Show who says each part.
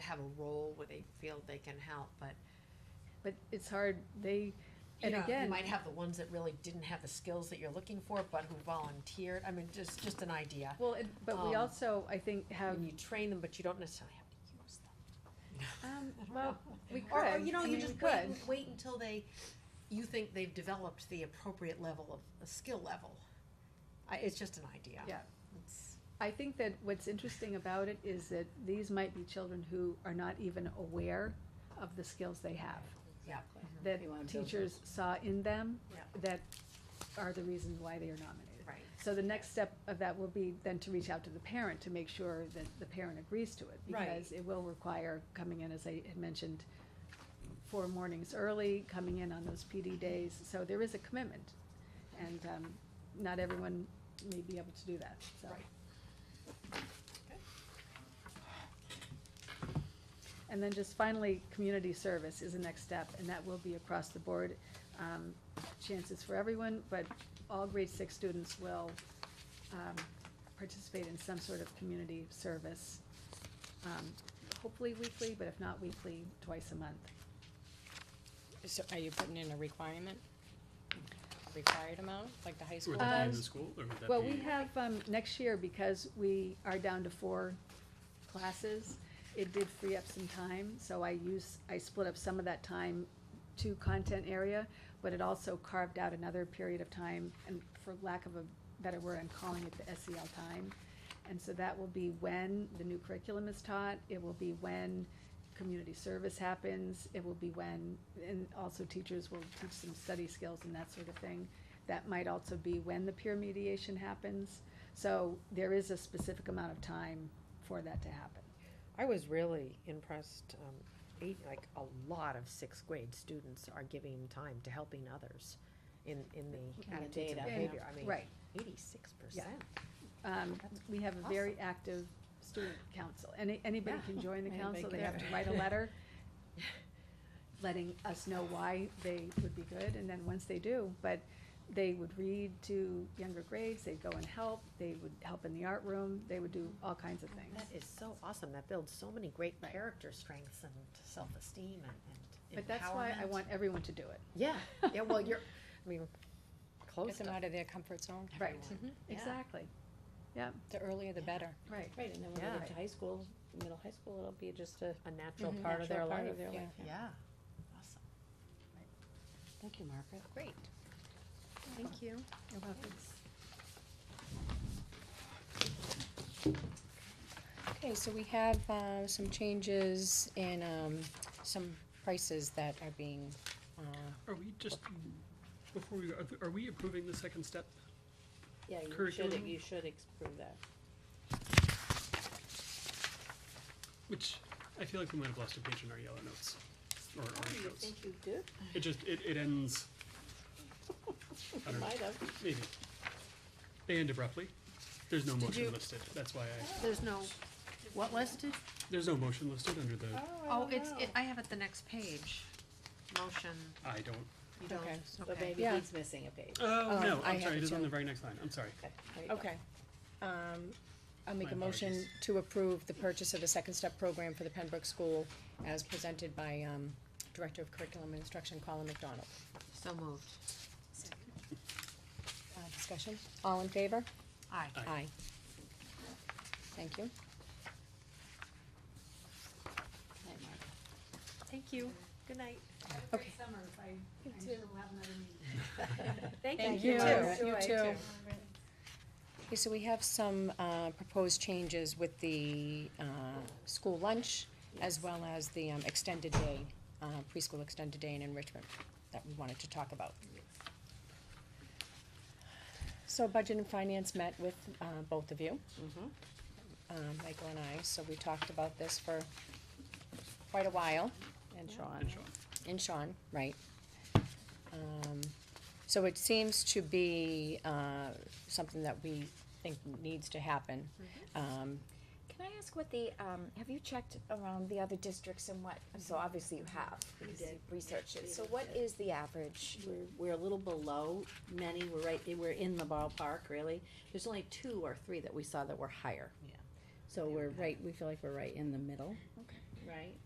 Speaker 1: have a role where they feel they can help, but
Speaker 2: But it's hard, they,
Speaker 1: you
Speaker 2: And
Speaker 1: know, you
Speaker 2: again-
Speaker 1: might have the ones that really didn't have the skills that you're looking for, but who volunteered, I mean, just, just an idea.
Speaker 2: well, it- but we
Speaker 1: Um,
Speaker 2: also, I think, have,
Speaker 1: And you train them, but you don't necessarily have to use them.
Speaker 2: um,
Speaker 1: I don't
Speaker 2: well,
Speaker 1: know.
Speaker 2: we could.
Speaker 1: Or, or, you know,
Speaker 2: I
Speaker 1: you
Speaker 2: mean,
Speaker 1: just
Speaker 2: we
Speaker 1: wait,
Speaker 2: could.
Speaker 1: wait until they, you think they've developed the appropriate level of, a skill level. I, it's just an idea.
Speaker 2: Yeah.
Speaker 1: It's-
Speaker 2: I think that what's interesting about it is that these might be children who are not even aware of the skills they have.
Speaker 1: Yeah.
Speaker 2: That
Speaker 3: They wanna build
Speaker 2: teachers saw in them
Speaker 1: Yeah.
Speaker 2: that are the reasons why they are nominated.
Speaker 1: Right.
Speaker 2: So the next step of that will be then to reach out to the parent to make sure that the parent agrees to it. Because
Speaker 1: Right.
Speaker 2: it will require coming in, as I had mentioned, four mornings early, coming in on those PD days, so there is a commitment. And, um, not everyone may be able to do that, so.
Speaker 1: Right.
Speaker 2: And then just finally, community service is the next step, and that will be across the board. Um, Chances for everyone, but all grade six students will um, participate in some sort of community service. um, Hopefully weekly, but if not weekly, twice a month.
Speaker 3: So are you putting in a requirement? A Required amount, like the high school?
Speaker 4: Would that be in
Speaker 2: Um,
Speaker 4: the school, or would that be?
Speaker 2: Well, we have, um, next year, because we are down to four classes, it did free up some time, so I use, I split up some of that time to content area, but it also carved out another period of time, and for lack of a better word, I'm calling it the SEL time. And so that will be when the new curriculum is taught, it will be when community service happens, it will be when, and also teachers will teach some study skills and that sort of thing. That might also be when the peer mediation happens, so there is a specific amount of time for that to happen.
Speaker 5: I was really impressed, um, eight, like, a lot of sixth grade students are giving time to helping others in, in the
Speaker 3: the
Speaker 5: attitudes and
Speaker 3: data.
Speaker 5: behavior, I mean,
Speaker 2: Right,
Speaker 5: eighty-six percent.
Speaker 2: um,
Speaker 5: That's
Speaker 2: we have a very
Speaker 5: awesome.
Speaker 2: active student council, any, anybody
Speaker 5: Yeah.
Speaker 2: can join the
Speaker 3: Anybody
Speaker 2: council, they
Speaker 3: can.
Speaker 2: have to write a letter letting us know why they would be good, and then once they do, but they would read to younger grades, they'd go and help, they would help in the art room, they would do all kinds of things.
Speaker 5: That is so awesome, that builds so many great
Speaker 2: Right.
Speaker 5: character strengths and self-esteem and, and
Speaker 2: But that's why I
Speaker 5: empowerment.
Speaker 2: want everyone to do it,
Speaker 5: Yeah, yeah, well, you're, I mean,
Speaker 3: Get
Speaker 5: close
Speaker 3: them
Speaker 5: to,
Speaker 3: out of their comfort zone.
Speaker 2: right,
Speaker 5: Yeah.
Speaker 2: exactly,
Speaker 3: The earlier the better.
Speaker 2: right.
Speaker 6: Right, and then when they
Speaker 5: Yeah.
Speaker 6: get to high school, middle high school, it'll be just a
Speaker 5: a natural
Speaker 3: Mhm.
Speaker 5: part of their
Speaker 6: natural part
Speaker 5: life,
Speaker 6: of their
Speaker 3: yeah.
Speaker 6: life. yeah.
Speaker 5: yeah, awesome,
Speaker 3: Thank you, Margaret. Great.
Speaker 5: thank you.
Speaker 2: You're welcome.
Speaker 3: Okay, so we have, uh, some changes in, um, some prices that are being, uh,
Speaker 4: Are we just, before we, are- are we approving the second step?
Speaker 6: Yeah, you should,
Speaker 4: Curriculum.
Speaker 6: you should approve that.
Speaker 4: Which, I feel like we might have lost a page in our yellow notes, or orange
Speaker 6: You
Speaker 4: notes.
Speaker 6: think you did?
Speaker 4: It just, it, it ends, I don't know,
Speaker 6: Might have.
Speaker 4: maybe. They end abruptly. There's no
Speaker 1: you-
Speaker 4: motion listed, that's why I,
Speaker 1: There's no, what listed?
Speaker 4: there's no motion listed under the,
Speaker 1: Oh, it's, it, I have it the next page. Motion,
Speaker 4: I don't,
Speaker 1: you don't,
Speaker 3: Okay.
Speaker 6: But
Speaker 1: okay.
Speaker 6: maybe
Speaker 3: Yeah.
Speaker 6: he's missing a page.
Speaker 4: oh,
Speaker 3: Um,
Speaker 4: no,
Speaker 3: I
Speaker 4: I'm
Speaker 3: have
Speaker 4: sorry,
Speaker 3: it
Speaker 4: it is on
Speaker 3: too.
Speaker 4: the very next line, I'm sorry.
Speaker 6: Okay, there you go.
Speaker 3: Okay. Um, I'll make
Speaker 4: My
Speaker 3: a motion
Speaker 4: apologies.
Speaker 3: to approve the purchase of the Second Step Program for the Pembroke School as presented by, um, Director of Curriculum and Instruction Colin McDonald.
Speaker 1: So moved.
Speaker 3: Uh, discussion? All in favor?
Speaker 1: Aye.
Speaker 4: Aye.
Speaker 3: Thank you.
Speaker 1: Thank you. Good night.
Speaker 3: Okay.
Speaker 2: summer if I,
Speaker 3: You
Speaker 2: I'm sure we'll have another meeting.
Speaker 3: Thank
Speaker 6: you.
Speaker 3: You
Speaker 6: You
Speaker 3: You
Speaker 6: too.
Speaker 3: too. Okay, so we have some, uh, proposed changes with the, uh, school lunch as well as the, um, extended day, uh, preschool extended day in enrichment that we wanted to talk about. So Budget and Finance met with, uh, both of you. Um, Michael and I, so we talked about this for quite a while.
Speaker 6: And Sean.
Speaker 4: And Sean.
Speaker 3: And Sean, right. Um, So it seems to be uh, something that we think needs to happen. Um,
Speaker 7: Can I ask what the, um, have you checked around the other districts and what, so obviously you have, because
Speaker 6: did.
Speaker 7: you've researched
Speaker 6: We
Speaker 7: it, so
Speaker 6: looked
Speaker 7: what
Speaker 6: at
Speaker 7: is the average?
Speaker 6: We're, we're a little below many, we're right, we're in the ballpark, really. There's only two or three that we saw that were higher.
Speaker 5: Yeah.
Speaker 6: So we're right, we feel like we're right in the middle. right?